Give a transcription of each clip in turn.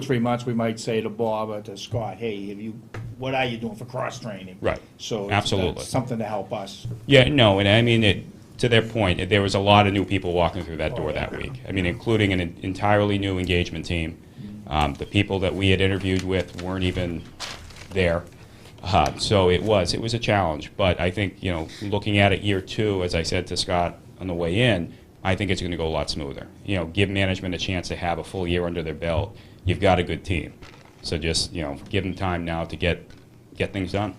three months, we might say to Bob or to Scott, hey, have you, what are you doing for cross-training? Right. So. it's- Absolutely. that's Something to help us. Yeah, no, and I mean, it, to their point, there was a lot of new people walking through that door that week. I mean, including an entirely new engagement team. Um, the people that we had interviewed with weren't even there. Uh, so it was, it was a challenge. But I think, you know, looking at it year two, as I said to Scott on the way in, I think it's going to go a lot smoother. You know, give management a chance to have a full year under their belt. You've got a good team. So just, you know, give them time now to get, get things done.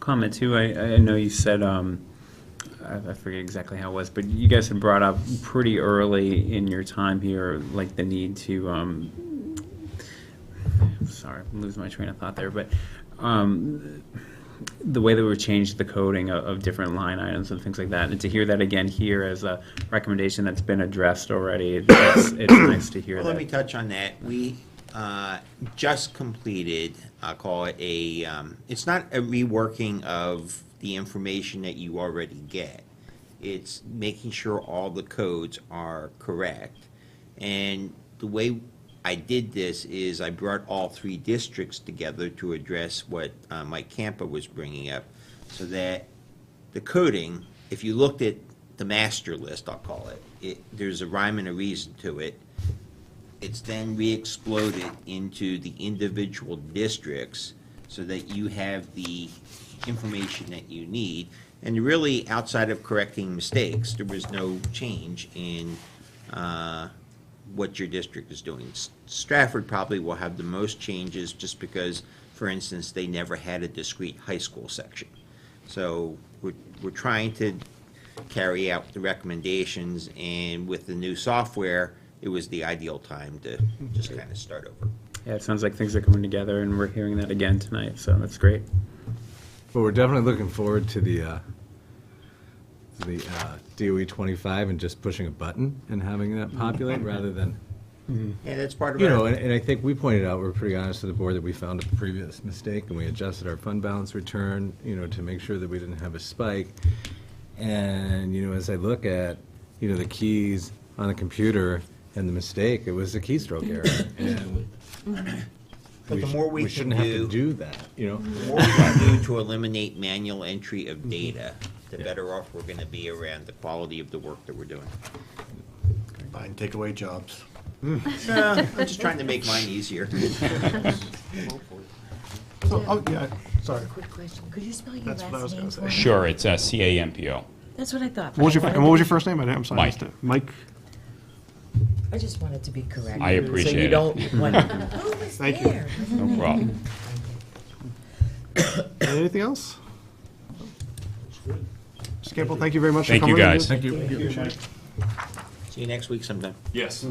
comment too. I, I know you said um, I, I forget exactly how it was, but you guys had brought up pretty early in your time here, like the need to. Um, sorry, I'm losing my train of thought there, but um, the way that we've changed the coding of, of different line items and things like that, and to hear that again here as a recommendation that's been addressed already, it's, it's nice to hear Well, that. let me touch on that. We uh, just completed, I'll call it a, um, it's not a reworking of the information that you already get. It's making sure all the codes are correct. And the way I did this is I brought all three districts together to address what uh, Mike Campa was bringing up, so that the coding, if you looked at the master list, I'll call it, it, there's a rhyme and a reason to it. It's then re-exploded into the individual districts so that you have the information that you need. And really, outside of correcting mistakes, there was no change in uh, what your district is doing. S- Stratford probably will have the most changes just because, for instance, they never had a discrete high school section. So we're, we're trying to carry out the recommendations, and with the new software, it was the ideal time to just kind of start over. yeah, it sounds like things are coming together, and we're hearing that again tonight, so that's great. But we're definitely looking forward to the, uh, to the uh, DOE 25 and just pushing a button and having that populate rather than, Yeah, that's part of you know, our, and, and I think we pointed out, we're pretty honest to the board that we found a previous mistake and we adjusted our fund balance return, you know, to make sure that we didn't have a spike. And, you know, as I look at, you know, the keys on the computer and the mistake, it was a keystroke error. And but the sh- more we can shouldn't have to do, do that, you know? the more we can do to eliminate manual entry of Mm-hmm. data, the better off we're gonna be around the quality of the work that we're doing. Fine, take away jobs. Uh, I'm just trying to make mine easier. Oh, oh, yeah, sorry. Quick question, could you spell your That's what I was last name gonna for say. me? Sure, it's uh, CAMPO. That's what I thought. What was your, I and what was your first name? I didn't, I'm sorry, I Mike. missed it. Mike, I just wanted to be correct. I appreciate it. So you don't want, who was Thank you. there? No problem. anything else? Mr. Campbell, thank you very much for Thank you, coming. in. guys. Thank you. See you next week sometime. Yes.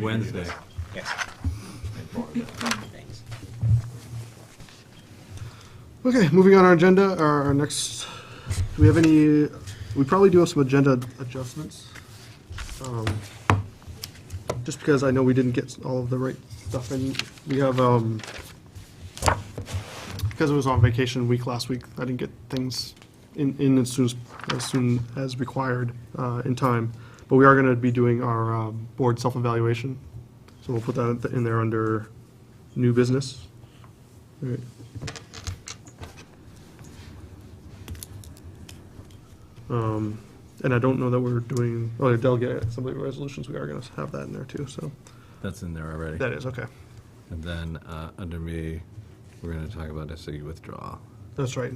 Wednesday. Yes. Thanks. Okay, moving on our agenda, our our next, do we have any, we probably do have some agenda adjustments. Um, Just because I know we didn't get all of the right stuff in, we have, um, because I was on vacation week last week, I didn't get things in, in as soon as, as soon as required, uh, in time. But we are gonna be doing our, um, board self-evaluation, so we'll put that in there under new business. All right. Um, and I don't know that we're doing, oh, the delegate assembly resolutions, we are gonna have that in there too, so, That's in there already. that is, okay. And then, uh, under me, we're gonna talk about SAU withdrawal. That's right.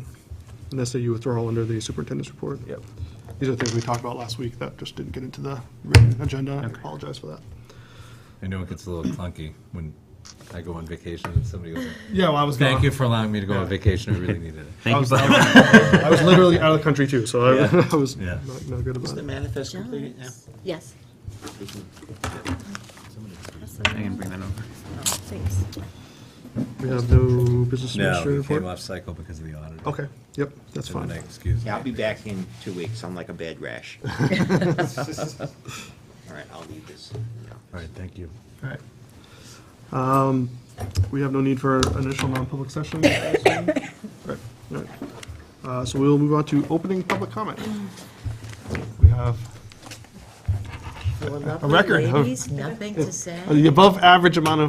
And SAU withdrawal under the superintendent's report. Yep. These are things we talked about last week that just didn't get into the written agenda, I apologize for that. I know it gets a little clunky when I go on vacation and somebody goes, Yeah, well, I was thank you for allowing me to go Yeah. on vacation, I really needed it. Thank you. I was literally out of the country too, so I I was Yeah. not, not good Is about the it. manifest completed now? Yes, We can- I can bring that over. thanks. We have no business administrator No, it came report? off cycle because of the audit. Okay, yep, that's So then I fine. excused Yeah, I'll be it. back in two weeks. I'm like a bad rash. All right, I'll leave this. All right, thank you. All right. Um, We have no need for initial non-public session. I assume? Right, all right. Uh, So we'll move on to opening public comment. We have for record lovely of- ladies, nothing to say. The above-average amount of